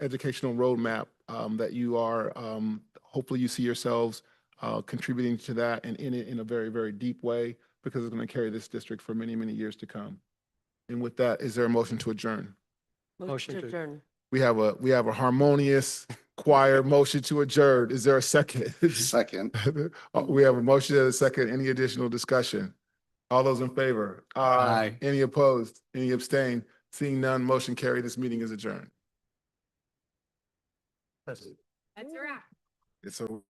educational roadmap um, that you are, um, hopefully you see yourselves uh, contributing to that and in it in a very, very deep way because it's going to carry this district for many, many years to come. And with that, is there a motion to adjourn? Motion to- adjourn. We have a, we have a harmonious choir motion to adjourn. Is there a second? Second. Uh, We have a motion and a second. Any additional discussion? All those in favor? Aye. Any opposed? Any abstain? Seeing none, motion carried. This meeting is adjourned. That's- That's a wrap. It's a